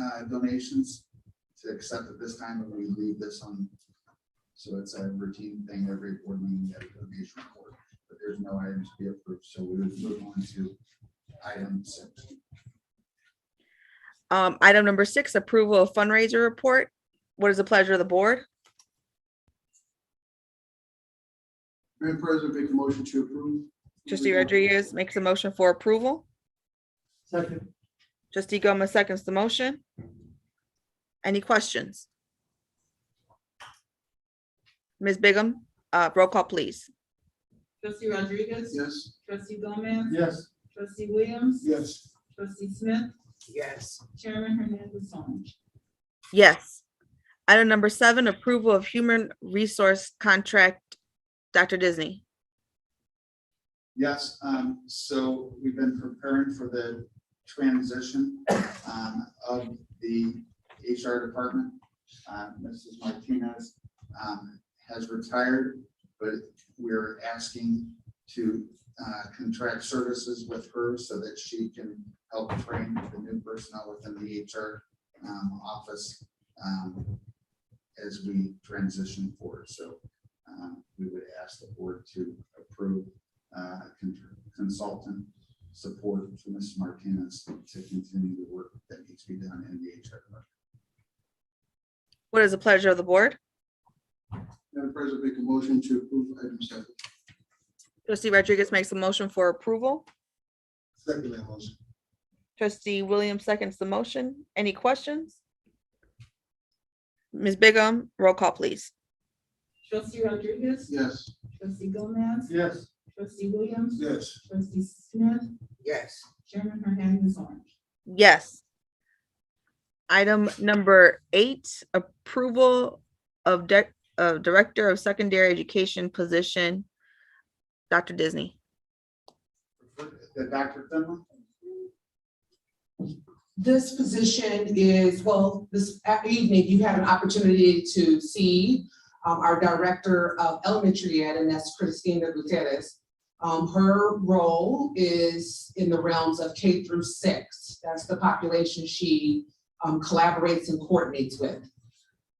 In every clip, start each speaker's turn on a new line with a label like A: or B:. A: uh, donations to accept at this time, and we leave this on. So it's a routine thing, every board meeting, you have a donation report, but there's no items to be approved, so we would move on to item six.
B: Um, item number six, approval of fundraiser report. What is the pleasure of the board?
C: Madam President, make a motion to approve.
A: Mm-hmm.
B: Trustee Rodriguez makes a motion for approval.
C: Second.
B: Trustee Gomez seconds the motion. Any questions? Ms. Bigum, uh, roll call, please.
D: Trustee Rodriguez?
C: Yes.
D: Trustee Gomez?
C: Yes.
D: Trustee Williams?
C: Yes.
D: Trustee Smith?
E: yes,
D: Chairman Hernandez on.
B: Yes. Item number seven, approval of human resource contract. Dr. Disney,
A: Yes, um, so we've been preparing for the transition, um, of the HR department. Uh, Mrs. Martinez, um, has retired, but we're asking to, uh, contract services with her so that she can help train the new personnel within the HR, um, office, um, as we transition forward. So, um, we would ask the board to approve uh, con- consultant support for Mrs. Martinez to continue the work that needs to be done in the HR. department.
B: what is the pleasure of the board?
C: Madam President, make a motion to approve item seven.
B: Trustee Rodriguez makes a motion for approval.
C: Second that motion.
B: Trustee Williams seconds the motion. Any questions? Ms. Bigum, roll call, please.
D: Trustee Rodriguez?
C: Yes.
D: Trustee Gomez?
C: Yes.
D: Trustee Williams?
C: Yes.
D: Trustee Smith?
E: yes,
D: Chairman Hernandez on.
B: Yes. Item number eight, approval of dec- of Director of Secondary Education position. Dr. Disney,
A: The Dr. Finley?
F: This position is, well, this a- evening, you had an opportunity to see um, our Director of Elementary Ed, and that's Christina Gutierrez. Um, Her role is in the realms of K through six. That's the population she um, collaborates and coordinates with.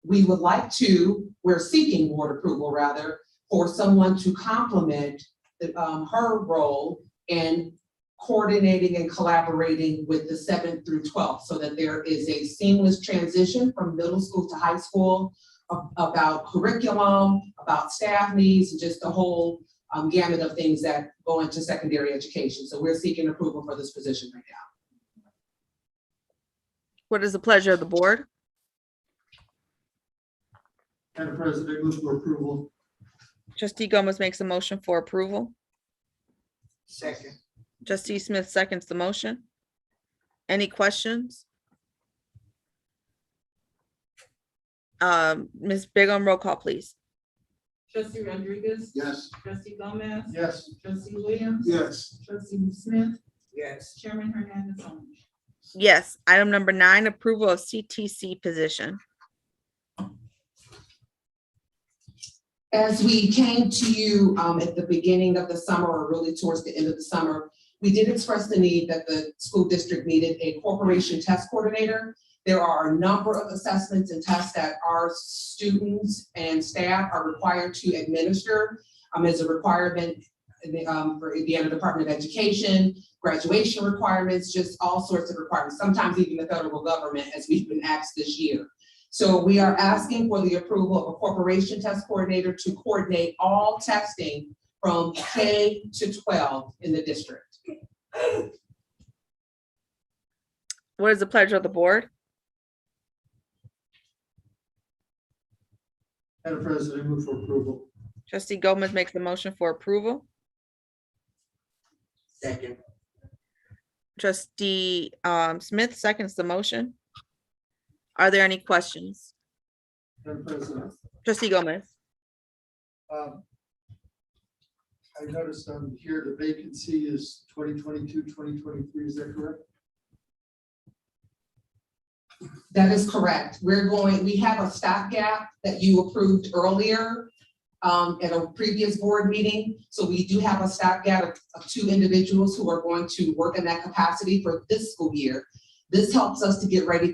F: We would like to, we're seeking board approval rather, for someone to complement the, um, her role in coordinating and collaborating with the seventh through twelfth so that there is a seamless transition from middle school to high school a- about curriculum, about staff needs, and just the whole um, gamut of things that go into secondary education. So we're seeking approval for this position right now.
B: what is the pleasure of the board?
C: Madam President, I move for approval.
B: Trustee Gomez makes a motion for approval.
E: second,
B: Trustee Smith seconds the motion. Any questions? Um, Ms. Bigum, roll call, please.
D: Trustee Rodriguez?
C: Yes.
D: Trustee Gomez?
C: Yes.
D: Trustee Williams?
C: Yes.
D: Trustee Smith?
E: yes,
D: Chairman Hernandez on.
B: Yes, item number nine, approval of CTC position.
F: As we came to you um, at the beginning of the summer, or really towards the end of the summer, we did express the need that the school district needed a corporation test coordinator. There are a number of assessments and tests that our students and staff are required to administer um, as a requirement um, for Indiana Department of Education, graduation requirements, just all sorts of requirements, sometimes even the federal government, as we've been asked this year. So we are asking for the approval of a corporation test coordinator to coordinate all testing from K to twelve in the district.
B: What is the pleasure of the board?
C: Madam President, I move for approval.
B: Trustee Gomez makes the motion for approval.
E: second,
B: Trustee um, Smith seconds the motion. Are there any questions?
C: Madam President,
B: Trustee Gomez,
C: um, I noticed on here the vacancy is 2022, 2023. Is that correct?
F: That is correct. We're going, we have a stopgap that you approved earlier um, at a previous board meeting. So we do have a stopgap of, of two individuals who are going to work in that capacity for this school year. This helps us to get ready